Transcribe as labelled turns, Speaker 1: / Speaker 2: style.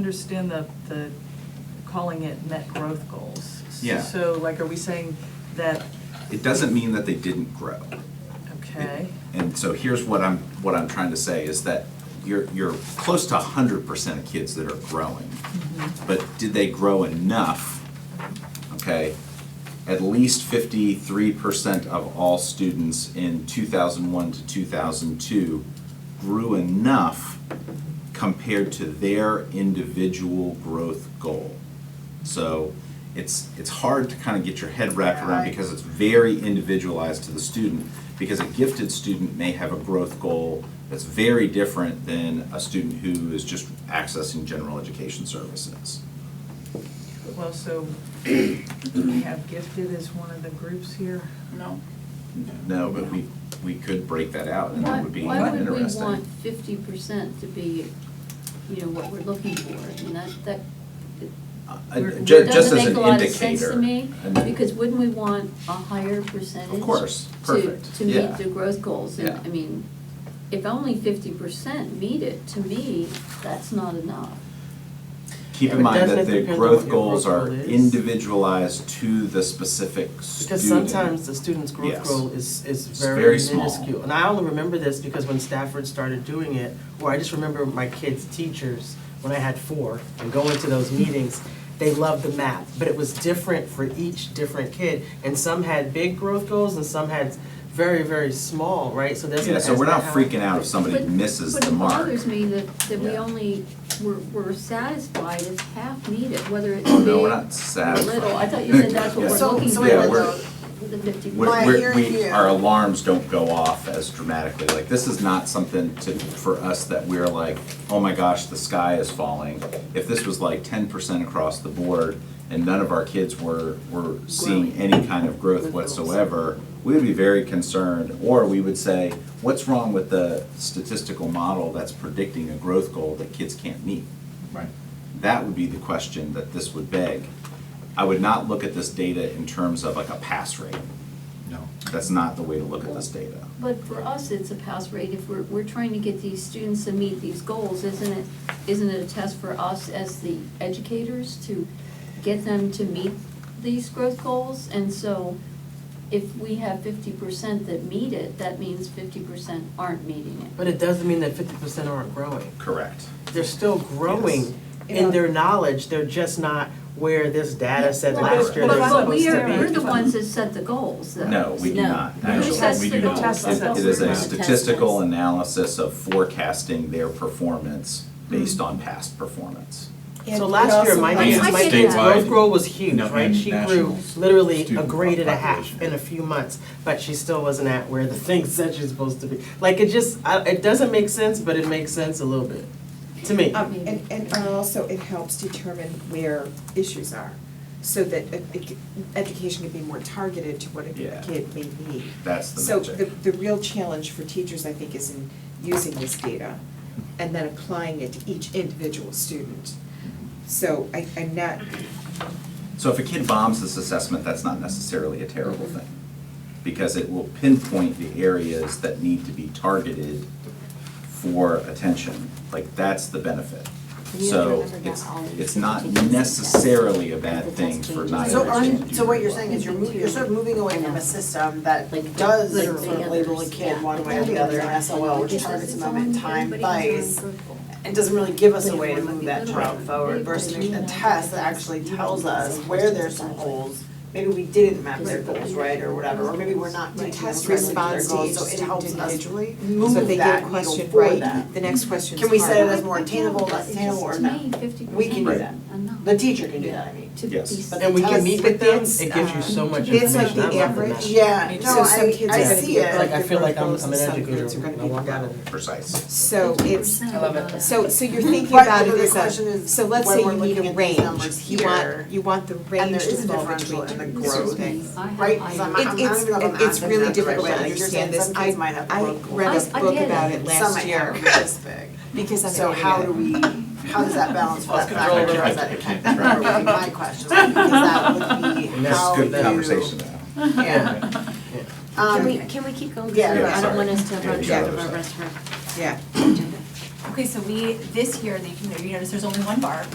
Speaker 1: understand the, the, calling it net growth goals.
Speaker 2: Yeah.
Speaker 1: So like, are we saying that,
Speaker 2: It doesn't mean that they didn't grow.
Speaker 1: okay,
Speaker 2: And so here's what I'm, what I'm trying to say is that you're, you're close to hundred percent of kids that are growing. But did they grow enough? Okay, at least fifty-three percent of all students in two thousand one to two thousand two grew enough compared to their individual growth goal. So it's, it's hard to kind of get your head wrapped around because it's very individualized to the student. Because a gifted student may have a growth goal that's very different than a student who is just accessing general education services.
Speaker 1: well, so do we have gifted as one of the groups here?
Speaker 3: No.
Speaker 2: No, but we, we could break that out and
Speaker 4: Why,
Speaker 2: that would be
Speaker 4: why would we want
Speaker 2: interesting.
Speaker 4: fifty percent to be, you know, what we're looking for? I mean, that, that,
Speaker 2: Uh,
Speaker 4: we're-
Speaker 2: ju-
Speaker 4: it
Speaker 2: Just as
Speaker 4: doesn't
Speaker 2: an
Speaker 4: make
Speaker 2: indicator.
Speaker 4: a lot of sense to me,
Speaker 2: And-
Speaker 4: because wouldn't we want a higher percentage?
Speaker 2: course,
Speaker 4: to-
Speaker 2: perfect,
Speaker 4: To
Speaker 2: yeah.
Speaker 4: meet the growth goals, and,
Speaker 2: Yeah.
Speaker 4: I mean, if only fifty percent meet it, to me, that's not enough.
Speaker 2: Keep
Speaker 3: Yeah,
Speaker 2: in
Speaker 3: but
Speaker 2: mind
Speaker 3: doesn't
Speaker 2: that
Speaker 3: it
Speaker 2: the
Speaker 3: depend on
Speaker 2: growth
Speaker 3: what your
Speaker 2: goals
Speaker 3: growth
Speaker 2: are
Speaker 3: goal is?
Speaker 2: individualized to the specific student.
Speaker 3: Because sometimes the student's growth
Speaker 2: Yes.
Speaker 3: goal is, is
Speaker 2: It's
Speaker 3: very
Speaker 2: very small.
Speaker 3: minuscule. And I only remember this because when Stafford started doing it, or I just remember my kids' teachers, when I had four, and going to those meetings, they loved the map, but it was different for each different kid. And some had big growth goals and some had very, very small, right? So that's.
Speaker 2: Yeah, so we're not freaking out if somebody
Speaker 4: But-
Speaker 2: misses the mark.
Speaker 4: But it bothers me that, that we
Speaker 2: Yeah.
Speaker 4: only, we're, we're satisfied if half meet it, whether it's
Speaker 2: Oh,
Speaker 4: big
Speaker 2: no, we're
Speaker 4: or
Speaker 2: not
Speaker 4: little. I
Speaker 2: satisfied.
Speaker 4: thought you said that's what
Speaker 2: Yeah.
Speaker 4: we're
Speaker 5: So-
Speaker 4: looking
Speaker 5: so
Speaker 4: for,
Speaker 2: wait a minute, though.
Speaker 4: the fifty percent.
Speaker 2: We're-
Speaker 5: Well, I
Speaker 2: we're-
Speaker 5: hear
Speaker 2: we-
Speaker 5: you.
Speaker 2: our alarms don't go off as dramatically, like, this is not something to, for us that we're like, oh my gosh, the sky is falling. If this was like ten percent across the board, and none of our kids were, were seeing any kind of growth whatsoever, we would be very concerned, or we would say, what's wrong with the statistical model that's predicting a growth goal that kids can't meet?
Speaker 6: Right.
Speaker 2: That would be the question that this would beg. I would not look at this data in terms of like a pass rate.
Speaker 6: No.
Speaker 2: That's not the way to look at this data.
Speaker 4: But for us, it's a pass rate, if we're, we're trying to get these students to meet these goals, isn't it, isn't it a test for us as the educators to get them to meet these growth goals? And so if we have fifty percent that meet it, that means fifty percent aren't meeting it.
Speaker 3: But it doesn't mean that fifty percent aren't growing.
Speaker 2: Correct.
Speaker 3: they're still growing
Speaker 5: Yeah.
Speaker 3: in their knowledge, they're just not where this data said
Speaker 4: Well,
Speaker 3: last
Speaker 4: but-
Speaker 3: year
Speaker 1: they're
Speaker 3: they were
Speaker 4: But, but
Speaker 3: supposed
Speaker 4: we
Speaker 3: to
Speaker 4: are,
Speaker 3: be.
Speaker 4: we're the ones that set the goals, though.
Speaker 2: No, we do not.
Speaker 4: Who
Speaker 2: Actually,
Speaker 4: sets
Speaker 2: we
Speaker 4: the
Speaker 2: do
Speaker 4: goals?
Speaker 2: not.
Speaker 1: That's
Speaker 2: It-
Speaker 1: what
Speaker 2: It is
Speaker 1: we're
Speaker 2: a
Speaker 1: gonna
Speaker 2: statistical analysis of forecasting their performance based on past performance.
Speaker 3: So last year, my
Speaker 5: And
Speaker 3: niece,
Speaker 4: And
Speaker 3: my kid's growth
Speaker 6: statewide,
Speaker 3: growth was huge,
Speaker 6: no,
Speaker 3: right?
Speaker 6: and
Speaker 3: She grew
Speaker 6: national
Speaker 3: literally a
Speaker 6: student
Speaker 3: grade and a half
Speaker 6: population.
Speaker 3: in a few months, but she still wasn't at where the thing said she was supposed to be. Like, it just, I, it doesn't make sense, but it makes sense a little bit, to me.
Speaker 5: Um, and, and also it helps determine where issues are, so that it- it c- education can be more targeted to what a
Speaker 2: Yeah.
Speaker 5: kid may need.
Speaker 2: That's the
Speaker 5: So
Speaker 2: magic.
Speaker 5: the, the real challenge for teachers, I think, is in using this data and then applying it to each individual student. So I, I'm not,
Speaker 2: So if a kid bombs this assessment, that's not necessarily a terrible thing. Because it will pinpoint the areas that need to be targeted for attention. Like, that's the
Speaker 7: You
Speaker 2: benefit.
Speaker 7: have to
Speaker 2: So
Speaker 7: remember that
Speaker 2: it's,
Speaker 7: all of
Speaker 2: it's
Speaker 7: the
Speaker 2: not
Speaker 7: teaching assistants,
Speaker 2: necessarily a
Speaker 7: that
Speaker 2: bad
Speaker 7: that's
Speaker 2: thing for
Speaker 7: changing.
Speaker 2: not every
Speaker 8: So are
Speaker 2: kid
Speaker 8: you,
Speaker 2: to do
Speaker 8: so what you're
Speaker 2: well.
Speaker 8: saying is you're moving, you're sort of moving away from a system that
Speaker 7: Like-
Speaker 8: does
Speaker 7: like
Speaker 8: sort
Speaker 7: the
Speaker 8: of label a
Speaker 7: others,
Speaker 8: kid
Speaker 7: yeah.
Speaker 8: one way or the other, an SOL, which
Speaker 7: Because
Speaker 8: targets a
Speaker 7: it's
Speaker 8: moment in
Speaker 7: on
Speaker 8: time,
Speaker 7: everybody's
Speaker 8: place,
Speaker 7: own group goal.
Speaker 8: and doesn't really give us a
Speaker 7: But
Speaker 8: way to
Speaker 7: everyone
Speaker 8: move
Speaker 7: might
Speaker 8: that
Speaker 7: be
Speaker 8: child
Speaker 7: different.
Speaker 8: forward
Speaker 7: They-
Speaker 8: versus
Speaker 7: but you
Speaker 8: a
Speaker 7: know,
Speaker 8: test that
Speaker 7: that's-
Speaker 8: actually
Speaker 7: you
Speaker 8: tells
Speaker 7: know,
Speaker 8: us
Speaker 7: that's
Speaker 8: where
Speaker 7: just
Speaker 8: there's some
Speaker 7: exactly.
Speaker 8: goals. Maybe we didn't map their
Speaker 7: Because it-
Speaker 8: goals right, or whatever, or maybe we're not
Speaker 5: The
Speaker 8: taking them
Speaker 5: test
Speaker 8: directly to their
Speaker 5: responds to
Speaker 8: goals,
Speaker 5: each
Speaker 8: so it
Speaker 5: student
Speaker 8: helps us
Speaker 5: individually.
Speaker 8: move
Speaker 5: so if they get
Speaker 8: that
Speaker 5: a
Speaker 8: needle
Speaker 5: question
Speaker 8: for them.
Speaker 5: right, the next question's
Speaker 8: Can we set it
Speaker 5: harder.
Speaker 8: as more attainable, less attainable, or no? We can do that. The teacher can do that, I mean.
Speaker 4: To be.
Speaker 2: Yes.
Speaker 3: But then we can
Speaker 8: Because-
Speaker 3: meet with
Speaker 5: but
Speaker 3: them,
Speaker 5: that's,
Speaker 3: it gives you so
Speaker 5: um,
Speaker 3: much
Speaker 5: that's
Speaker 3: information,
Speaker 5: like
Speaker 3: I
Speaker 5: the
Speaker 3: love the
Speaker 5: average.
Speaker 3: math.
Speaker 8: Yeah,
Speaker 5: So
Speaker 8: no,
Speaker 5: some
Speaker 8: I,
Speaker 5: kids
Speaker 8: I
Speaker 3: are gonna
Speaker 8: see
Speaker 3: be-
Speaker 8: it.
Speaker 3: Like, I
Speaker 5: Like,
Speaker 3: feel
Speaker 5: the
Speaker 3: like I'm,
Speaker 5: growth
Speaker 3: I'm an
Speaker 5: goals, some
Speaker 3: educator,
Speaker 5: kids are gonna
Speaker 3: I
Speaker 5: be
Speaker 3: walk out of
Speaker 5: better.
Speaker 3: there.
Speaker 2: Precise.
Speaker 5: So it's,
Speaker 4: I love it.
Speaker 5: so, so you're thinking
Speaker 8: Right,
Speaker 5: about
Speaker 8: but
Speaker 5: it
Speaker 8: the
Speaker 5: as
Speaker 8: question
Speaker 5: a,
Speaker 8: is
Speaker 5: so let's
Speaker 8: when
Speaker 5: say
Speaker 8: we're
Speaker 5: you
Speaker 8: looking
Speaker 5: need a
Speaker 8: at these
Speaker 5: range,
Speaker 8: numbers
Speaker 5: you
Speaker 8: here,
Speaker 5: want, you want the
Speaker 8: and
Speaker 5: range
Speaker 8: there
Speaker 5: to
Speaker 8: is a
Speaker 5: fall
Speaker 8: differential
Speaker 5: between
Speaker 8: in the
Speaker 5: different
Speaker 8: growth,
Speaker 5: things.
Speaker 8: right? Because I'm,
Speaker 4: um,
Speaker 5: It-
Speaker 8: I'm not
Speaker 5: it's-
Speaker 8: even gonna
Speaker 5: it- it's really difficult to understand this.
Speaker 8: Some kids
Speaker 5: I-
Speaker 8: might have
Speaker 5: I
Speaker 8: growth goals.
Speaker 5: read
Speaker 4: a book about
Speaker 5: it
Speaker 8: Some
Speaker 5: last
Speaker 8: might
Speaker 5: year.
Speaker 8: have this big.
Speaker 5: Because I'm.
Speaker 8: So
Speaker 5: getting
Speaker 8: how
Speaker 5: it.
Speaker 8: do we, how does that balance for
Speaker 2: I
Speaker 8: that
Speaker 2: was gonna
Speaker 8: factor?
Speaker 2: throw it
Speaker 8: Is
Speaker 2: around.
Speaker 8: that a cat number would be my question, because that would be
Speaker 3: And that's
Speaker 8: how
Speaker 2: It's
Speaker 8: you.
Speaker 2: good conversation to have.
Speaker 8: Yeah.
Speaker 7: Can we,
Speaker 8: Um,
Speaker 7: can we keep going?
Speaker 8: yeah,
Speaker 7: Sorry,
Speaker 8: yeah,
Speaker 7: I
Speaker 2: sorry.
Speaker 7: don't want us to
Speaker 2: Yeah,
Speaker 7: run
Speaker 2: yeah,
Speaker 7: out of
Speaker 2: yeah.
Speaker 7: our rest of our
Speaker 5: Yeah.
Speaker 7: agenda.
Speaker 9: Okay, so we, this year, you can- you notice there's only one bar,